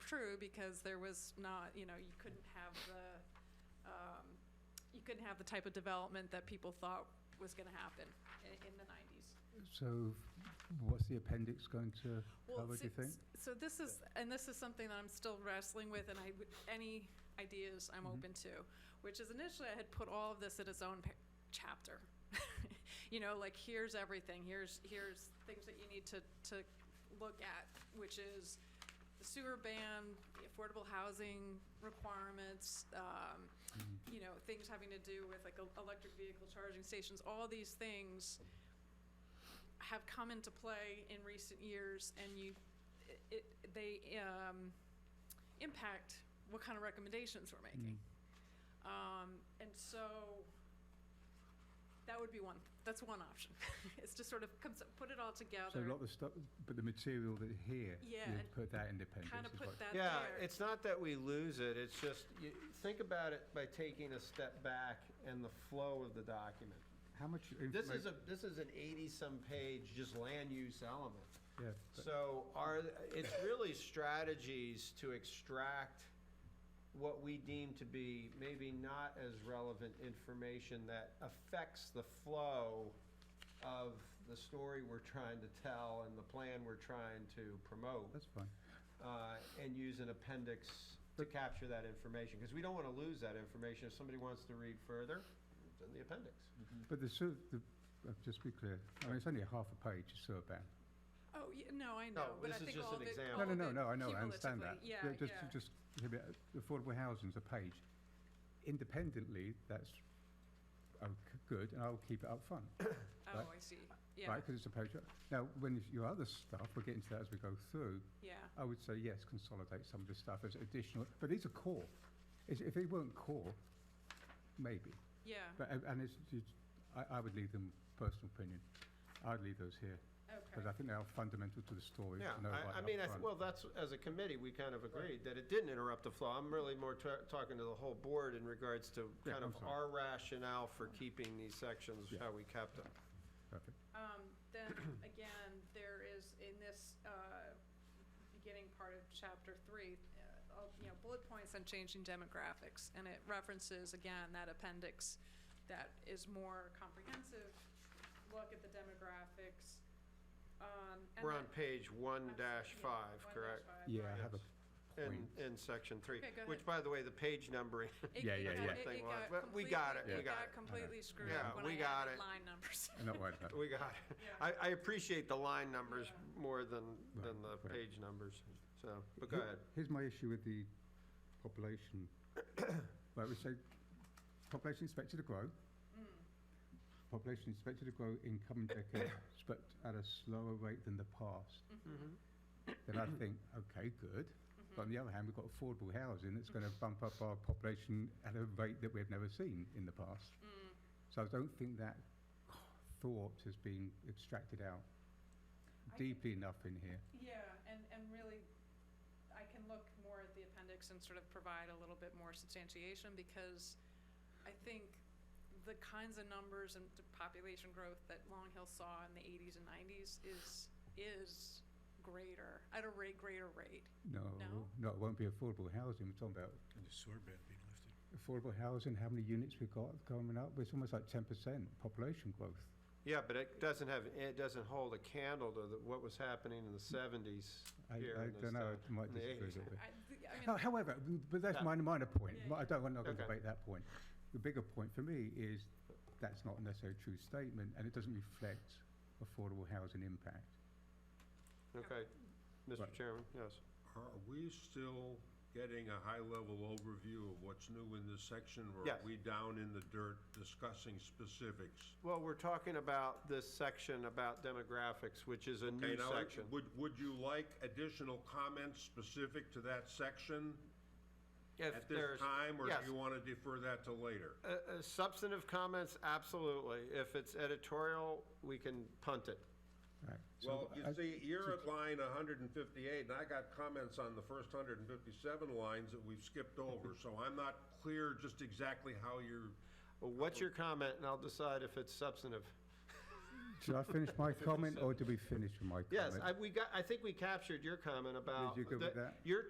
true because there was not, you know, you couldn't have the, um, you couldn't have the type of development that people thought was gonna happen in, in the nineties. So what's the appendix going to Well, cover, do you so- think? So this is, and this is something that I'm still wrestling with, and I, would- any ideas I'm Mhm. open to, which is initially I had put all of this in its own pa- chapter. You know, like, here's everything, here's, here's things that you need to, to look at, which is the sewer ban, the affordable housing requirements, um, you know, things having to do with like el- electric vehicle charging stations, all these things have come into play in recent years and you, it- it, they, um, impact what kind of recommendations we're Mm. making. Mm-hmm. Um, and so that would be one, that's one option. It's to sort of comes, put it all So a lot together, of the stuff, but the material that here, Yeah, you and put that in the appendix. kind of is put what- that there. Yeah, it's not that we lose it, it's just, you, think about it by taking a step back and the flow of the document. How much This is a, information? this is an eighty-some page just land use element. Yeah, but- So are, it's really strategies to extract what we deem to be maybe not as relevant information that affects the flow of the story we're trying to tell and the plan we're trying to promote that's fine. uh, and use an appendix to capture that information, because we don't want to lose that information. If somebody wants to read further, it's in the appendix. But the sewer, the, uh, just to be clear, I mean, it's only a half a page, of sewer ban. Oh, yeah, no, I know, but I this think is just all an of it. example. all No, no, of it no, no, I know, I understand that. cumulatively, Yeah, Just, yeah. just, hear me out. affordable housing's a page. Independently, that's, oh, good, and I'll keep it up front. Oh, I see. Yeah, right? Because it's a page. uh, Now, when your other stuff, we'll get into that as we go through, yeah. I would say, yes, consolidate some of this stuff as additional, but these are core. Is- If they weren't core, maybe, Yeah, but, uh, and and it's, it's- I, I would leave them, personal opinion, I'd leave those here, because I okay. think they are fundamental to the story. to Yeah, know right I, I up mean, I, th- front. well, that's, as a committee, we kind of agreed that it didn't interrupt the flow. I'm really more ta- talking to the whole board in regards to Yeah, kind I'm of sorry. our rationale for keeping these sections, how we kept them. Perfect. Um, then again, there is in this, uh, beginning part of chapter three, uh, all- you know, bullet points on changing demographics. And it references again that appendix that is more comprehensive, look at the demographics. Um, and We're on then- page one I'm sorry, dash yeah, five, one dash correct? five, Yeah, I right. have a In, point. in section three, Okay, go which, ahead. by the way, the page numbering, It- Yeah, it yeah, got- yeah. it- Thing it was, got but we got completely- it, we It got got it. completely screwed Yeah, up when we I got added it. line numbers. I'm not worried about it. we got it. Yeah. I, I appreciate the line numbers Yeah. more than, than the Right, right. page numbers, so, but go Here- ahead. Here's my issue with the population. Right, we say population expected to grow. Hmm. Population expected to grow in coming decades, but at a slower rate than the past. Then I think, okay, good. Mm-hmm. But on the other hand, we've got affordable housing that's going to bump up our population at a rate that we've never seen in the past. So I don't think that thought has been extracted out I think- deeply enough in here. Yeah, and, and really, I can look more at the appendix and sort of provide a little bit more substantiation, because I think the kinds of numbers and the population growth that Long Hill saw in the eighties and nineties is, is greater, at a rate, greater rate. No, no, it won't be affordable housing. We're talking about And the sewer ban being lifted. affordable housing, how many units we've got coming up, it's almost like ten percent population growth. Yeah, but it doesn't have, it doesn't hold a candle to the- what was happening in the Mm. seventies I, I here in this don't know, town. I might in the disagree a 80s. little bit. I, I Ho- mean, However, but that's Yeah. my minor point, Yeah, but I don't, I'm not going to Okay. debate that point. The bigger point for me is that's not necessarily a true statement and it doesn't reflect affordable housing impact. Okay, Mr. Right. Chairman, yes. Are we still getting a high-level overview of what's new in this section? Or are Yes. we down in the dirt discussing specifics? Well, we're talking about this section about demographics, which is a Okay, new now, section. Would, would you like additional comments specific to that section If at this there's- time? Or yes. do you want to defer that to later? Uh, uh, Substantive comments, absolutely. If it's editorial, we can punt it. Right. So uh, Well, I- you see, you're at line hundred and fifty-eight, and I got comments on the first hundred and fifty-seven lines that we've skipped over, so I'm not clear just exactly how you're, What's your comment, and I'll decide if it's substantive. Should I finish my comment or do we finish with my comment? Yes, I, we got, I think we captured your comment about. you go with the- that? You're